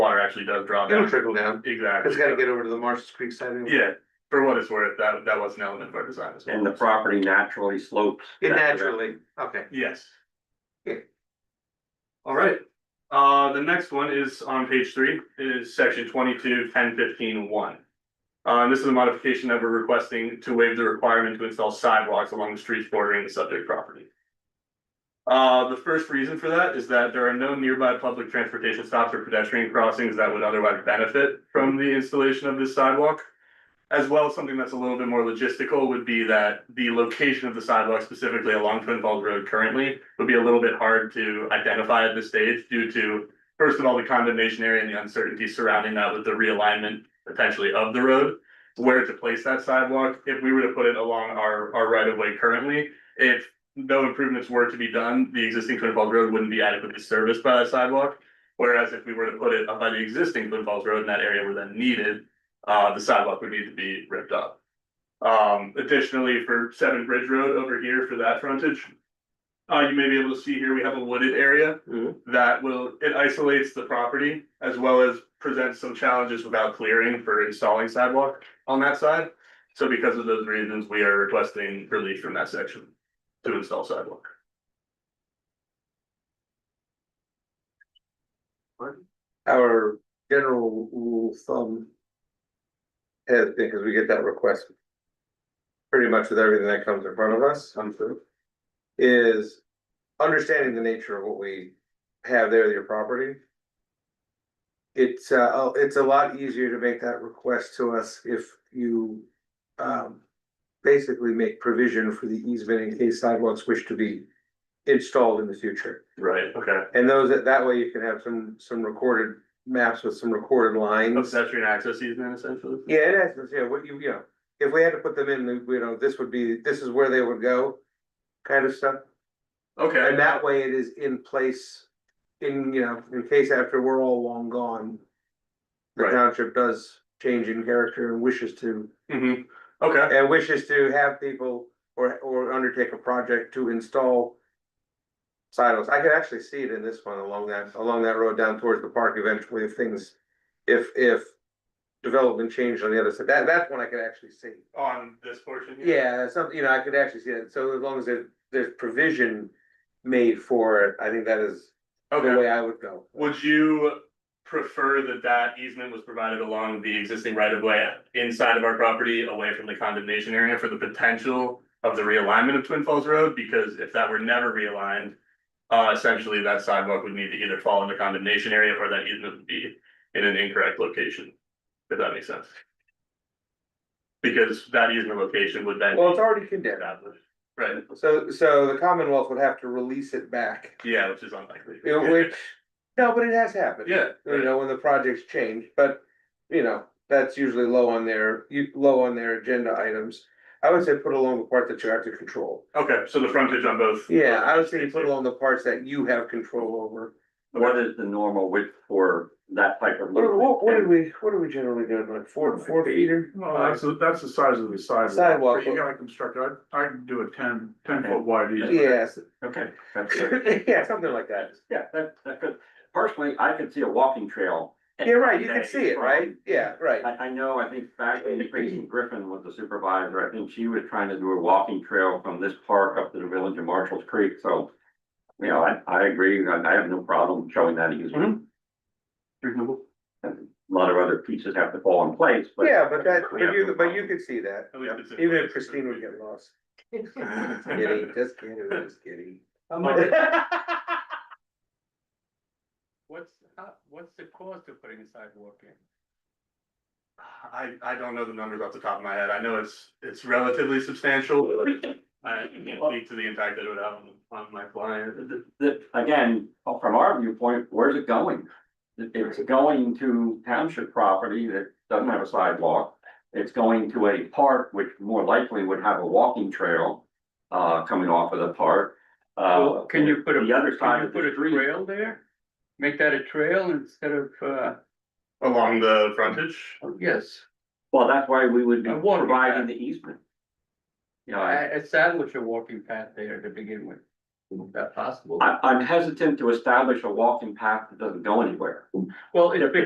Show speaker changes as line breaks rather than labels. actually does draw
It'll
down.
trickle down.
Exactly.
It's gotta get over to the Marshall's Creek side. anyway.
Yeah, for what it's worth, that, that was an element of our design as well.
And the property naturally slopes.
It
back to that.
naturally, okay.
Yes.
Okay.
All right, uh, the next one is on page three, It is section twenty-two, ten fifteen, one. Uh, this is a modification that we're requesting to waive the requirement to install sidewalks along the streets bordering the subject property. Uh, the first reason for that is that there are no nearby public transportation stops or pedestrian crossings that would otherwise benefit from the installation of this sidewalk. As well, as something that's a little bit more logistical would be that the location of the sidewalk specifically along Twin Falls Road currently would be a little bit hard to identify at this stage due to, first of all, the condemnation area and the uncertainty surrounding that with the realignment potentially of the road, where to place that sidewalk. If we were to put it along our, our right of way currently, if no improvements were to be done, the existing Twin Falls Road wouldn't be adequately serviced by that sidewalk. Whereas if we were to put it up by the existing Twin Falls Road and that area were then needed, uh, the sidewalk would need to be ripped up. Um, additionally, for Seven Bridge Road over here for that frontage. Uh, you may be able to see here, we have a wooded area
Mhm.
that will, it isolates the property as well as presents some challenges without clearing for installing sidewalk on that side. So because of those reasons, we are requesting relief from that section to install sidewalk.
Our general rule of thumb. Has been, because we get that request. Pretty much with everything that comes in front of us. I'm sure. Is understanding the nature of what we have there, your property. It's uh, oh, it's a lot easier to make that request to us if you um. Basically make provision for the easement in case sidewalks wish to be installed in the future.
Right, okay.
And those, that way you can have some, some recorded maps with some recorded lines.
Pedestrian access easement essentially.
Yeah, in essence, yeah, what you, you know, if we had to put them in, you know, this would be, this is where they would go. Kind of stuff,
Okay,
and that way it is in place, in, you know, in case after we're all long gone. The
Right.
township does change in character and wishes to,
mhm, okay.
and wishes to have people or, or undertake a project to install. Sidewalks, I could actually see it in this one along that, along that road down towards the park eventually if things, if, if. Development changed on the other side, that, that's one I could actually see.
On this portion? here?
Yeah, something, you know, I could actually see that, so as long as there, there's provision made for it, I think that is the
Okay,
way I would go.
would you prefer that that easement was provided along the existing right of way inside of our property, away from the condemnation area for the potential of the realignment of Twin Falls Road? Because if that were never realigned, uh, essentially that sidewalk would need to either fall in the condemnation area or that easement would be in an incorrect location, if that makes sense. Because that easement location would then.
Well, it's already condemned,
established, Right,
so, so the Commonwealth would have to release it back,
yeah, which is unlikely.
you know, which, no, but it has happened.
Yeah.
you know, when the projects change, but, you know, that's usually low on their, you, low on their agenda items. I would say put along the part that you have to control.
Okay, so the frontage on both.
Yeah, I would say put along the parts that you have control over.
What is the normal width for that type of?
What, what, what
movement?
did we, what do we generally do, like four, four feet?
Well, that's, the- that's the size of the sidewalk.
Sidewalk.
But You gotta construct, it. I, I can do a ten, ten foot wide easement.
Yes,
Okay, that's good.
yeah, something like that.
Yeah, that, that could, personally, I could see a walking trail.
Yeah, right, you can see it, right? Yeah, right.
I, I know, I think back when Tracy Griffin was the supervisor, I think she was trying to do a walking trail from this park up to the village of Marshall's Creek, so. You know, I, I agree, I, I have no problem showing that
Mm-hmm.
easement.
Reasonable.
And A lot of other pieces have to fall in place, but.
Yeah, but that, but you, but you could see that,
At least it's in
even if
place.
Christine would get lost.
Yeah.
Kidding, just kidding, just kidding.
What's, how- what's the cost of putting a sidewalk in?
I, I don't know the numbers off the top of my head. I know it's, it's relatively substantial. I can't speak to the impact that it would have on, on my client.
The, the, again, from our viewpoint, where's it going? It- It's going to township property that doesn't have a sidewalk. It's going to a park which more likely would have a walking trail, uh, coming off of the park. Uh,
Well, Can you put a, can
The other side
you
of
put
the
a
street.
trail there? Make that a trail instead of, uh,
Along the frontage,
oh, yes,
Well, that's why we would be
A walking
providing
path.
the easement. You know, I,
I establish a walking path there to begin with. Is that possible?
I- I'm hesitant to establish a walking path that doesn't go anywhere.
Well, it's